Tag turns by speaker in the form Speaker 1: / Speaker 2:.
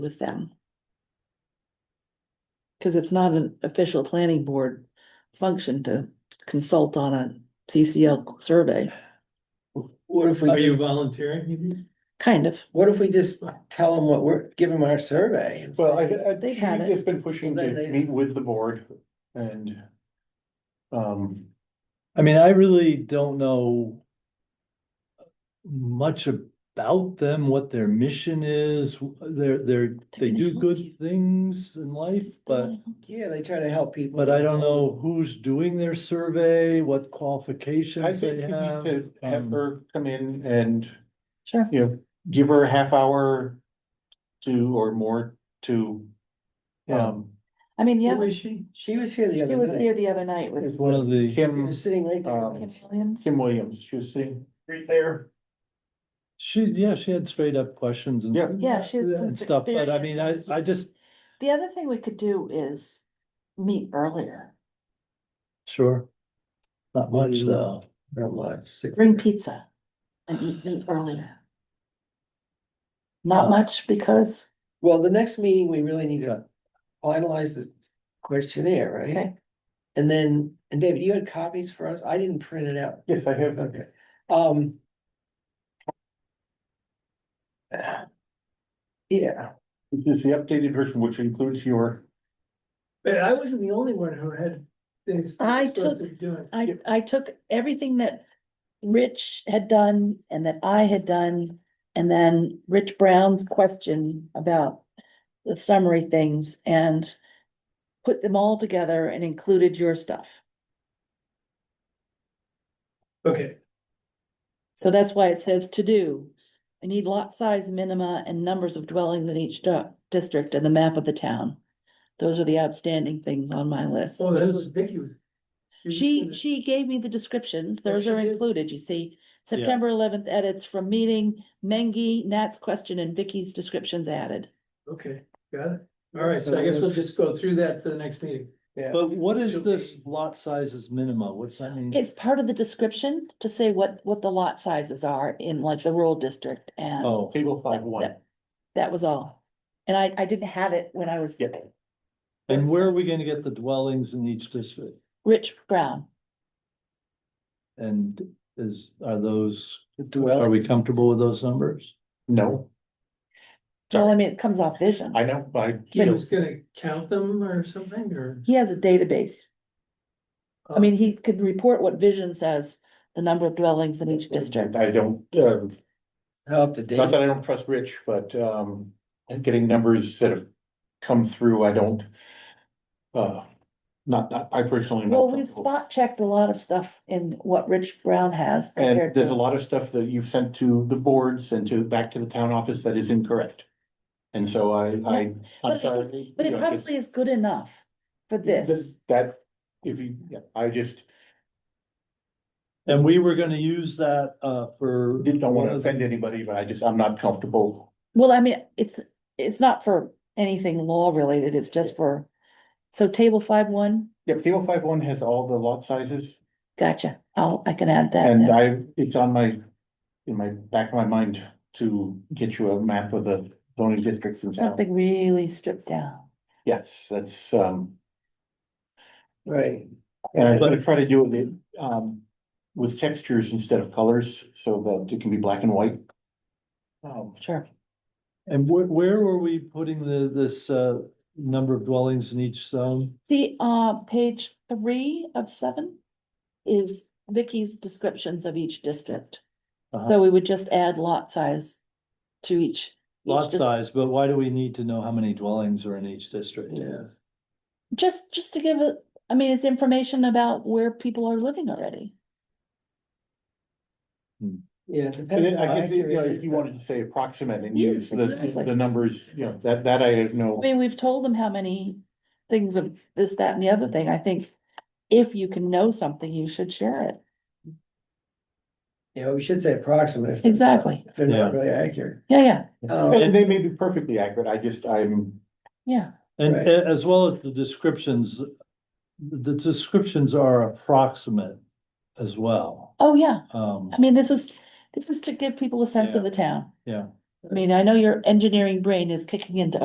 Speaker 1: with them. Cause it's not an official planning board function to consult on a CCL survey,
Speaker 2: What if
Speaker 3: Are
Speaker 2: we
Speaker 3: you
Speaker 2: just,
Speaker 3: volunteering? Evie?
Speaker 1: kind of.
Speaker 2: what if we just tell them what we're, give them our survey? and
Speaker 4: Well, I,
Speaker 2: say-
Speaker 4: I,
Speaker 1: They've had
Speaker 4: has been pushing
Speaker 2: Well,
Speaker 4: to
Speaker 2: they- they-
Speaker 4: meet with the board and. Um,
Speaker 3: I mean, I really don't know much about them, what their mission is. They're, they're, they
Speaker 1: gonna
Speaker 3: do
Speaker 1: help you.
Speaker 3: good things in life, but,
Speaker 2: Yeah, they try to help people.
Speaker 3: but I don't know who's doing their survey, what
Speaker 4: I
Speaker 3: qualifications
Speaker 4: think
Speaker 3: they
Speaker 4: you need
Speaker 3: have.
Speaker 4: to have
Speaker 3: um,
Speaker 4: her come in and,
Speaker 1: Sure.
Speaker 4: you know, give her a half hour. to or more to.
Speaker 3: Yeah.
Speaker 4: Um,
Speaker 1: I mean,
Speaker 2: Who
Speaker 1: yeah,
Speaker 2: was she? She was here the
Speaker 1: she
Speaker 2: other
Speaker 1: was Um,
Speaker 2: night.
Speaker 1: here the other night with
Speaker 4: is
Speaker 3: One
Speaker 4: what
Speaker 3: of the-
Speaker 2: She
Speaker 4: Kim,
Speaker 2: was sitting right there.
Speaker 1: Kim Williams.
Speaker 4: Kim Williams, she was sitting right there.
Speaker 3: She, yeah, she had straight up questions and.
Speaker 4: Yeah.
Speaker 1: Yeah, she had some
Speaker 3: And stuff, but I mean, I,
Speaker 1: experience.
Speaker 3: I just,
Speaker 1: The other thing we could do is meet earlier,
Speaker 3: sure. Not much though.
Speaker 2: Not much. six-
Speaker 1: bring pizza and eat meet earlier. Not
Speaker 3: Uh,
Speaker 1: much because,
Speaker 2: Well, the next meeting, we really need
Speaker 3: Yeah.
Speaker 2: to finalize the questionnaire, right?
Speaker 1: Okay.
Speaker 2: And then, and David, you had copies for us? I didn't print it out.
Speaker 4: Yes, I have.
Speaker 2: Okay. Um. Yeah,
Speaker 4: This is the updated version, which includes your,
Speaker 5: But I wasn't the only one who had things.
Speaker 1: I took-
Speaker 5: Doing.
Speaker 1: I, I took everything that Rich had done and that I had done. And then Rich Brown's question about the summary things and put them all together and included your stuff.
Speaker 5: Okay,
Speaker 1: So that's why it says to do. I need lot size minima and numbers of dwellings in each du- district and the map of the town. Those are the outstanding things on my list.
Speaker 5: well, that was Vicky. was- was
Speaker 1: She,
Speaker 5: gonna-
Speaker 1: she gave me the descriptions, those
Speaker 5: she
Speaker 1: are
Speaker 5: did?
Speaker 1: included, you see.
Speaker 3: Yeah.
Speaker 1: September eleventh edits from meeting, Mengi, Nat's question and Vicky's descriptions added.
Speaker 5: Okay, got it. All right, so I guess we'll just go through that for the next meeting.
Speaker 2: yeah.
Speaker 3: But what is
Speaker 5: Should
Speaker 3: this
Speaker 5: we-
Speaker 3: lot sizes minima? What's that mean?
Speaker 1: It's part of the description to say what, what the lot sizes are in like the rural district and.
Speaker 3: Oh,
Speaker 4: table five one,
Speaker 1: that- That was all. And I, I didn't have it when I was
Speaker 4: Yeah.
Speaker 3: and where are we gonna get the dwellings in each district?
Speaker 1: Rich Brown.
Speaker 3: And is, are those,
Speaker 2: Dwell.
Speaker 3: are we comfortable with those numbers?
Speaker 4: no,
Speaker 1: Well, I mean, it comes off vision.
Speaker 4: I know, I.
Speaker 5: She was gonna count them or something, or?
Speaker 1: He has a database. I mean, he could report what vision says, the number of dwellings in each district.
Speaker 4: I don't, um,
Speaker 2: How up to date.
Speaker 4: Not that I don't trust Rich, but um, and getting numbers that have come through, I don't. Uh, not, not- I personally. am not
Speaker 1: Well, we've
Speaker 4: comfortable.
Speaker 1: spot checked a lot of stuff in what Rich Brown has.
Speaker 4: And
Speaker 1: compared
Speaker 4: there's a
Speaker 1: to-
Speaker 4: lot of stuff that you've sent to the boards and to, back to the town office that is incorrect. And so I, I,
Speaker 1: But
Speaker 4: I'm
Speaker 1: it-
Speaker 4: sorry.
Speaker 1: But
Speaker 4: you
Speaker 1: it
Speaker 4: know, it's-
Speaker 1: probably is good enough for this.
Speaker 4: That, if you, yeah, I just
Speaker 3: And we were gonna use that, uh, for.
Speaker 4: didn't
Speaker 3: one
Speaker 4: want to
Speaker 3: of the-
Speaker 4: offend anybody, but I just, I'm not comfortable.
Speaker 1: Well, I mean, it's, it's not for anything law related, it's just for, so table five one,
Speaker 4: Yeah, table five one has all the lot sizes
Speaker 1: gotcha. I'll, I can add that.
Speaker 4: And
Speaker 1: now.
Speaker 4: I, it's on my, in my back of my mind to get you a map of the zoning districts in town.
Speaker 1: Something really stripped down.
Speaker 4: Yes, that's, um,
Speaker 2: Right,
Speaker 4: and I'm gonna try to do it, um, with textures instead of colors, so that it can be black and white. Um,
Speaker 1: Sure.
Speaker 3: And where, where were we putting the, this, uh, number of dwellings in each zone?
Speaker 1: See, uh, page three of seven is Vicky's descriptions of each district.
Speaker 3: Uh-huh.
Speaker 1: So we would just add lot size to each.
Speaker 3: Lot
Speaker 1: each dis-
Speaker 3: size, but why do we need to know how many dwellings are in each district?
Speaker 5: Yeah.
Speaker 1: Just, just to give it, I mean, it's information about where people are living already.
Speaker 2: yeah.
Speaker 4: And
Speaker 2: depends
Speaker 4: it- I
Speaker 2: how
Speaker 4: guess, you know,
Speaker 2: accurate
Speaker 4: if you
Speaker 2: it is.
Speaker 4: wanted to say approximate and use
Speaker 1: Yes,
Speaker 4: the,
Speaker 1: exactly.
Speaker 4: the numbers, you know, that, that I
Speaker 1: I
Speaker 4: know.
Speaker 1: mean, we've told them how many things of this, that, and the other thing. I think if you can know something, you should share it.
Speaker 2: You know, we should say approximate. if they're-
Speaker 1: Exactly.
Speaker 2: If they're not
Speaker 3: Yeah.
Speaker 2: really accurate.
Speaker 1: Yeah, yeah,
Speaker 2: Um,
Speaker 4: And they may be perfectly accurate, I just, I'm,
Speaker 1: yeah.
Speaker 3: And
Speaker 2: Right.
Speaker 3: a- as well as the descriptions, the descriptions are approximate as well.
Speaker 1: Oh, yeah.
Speaker 3: Um,
Speaker 1: I mean, this was, this is to give people a sense of the town.
Speaker 3: Yeah.
Speaker 1: I mean, I know your engineering brain is kicking into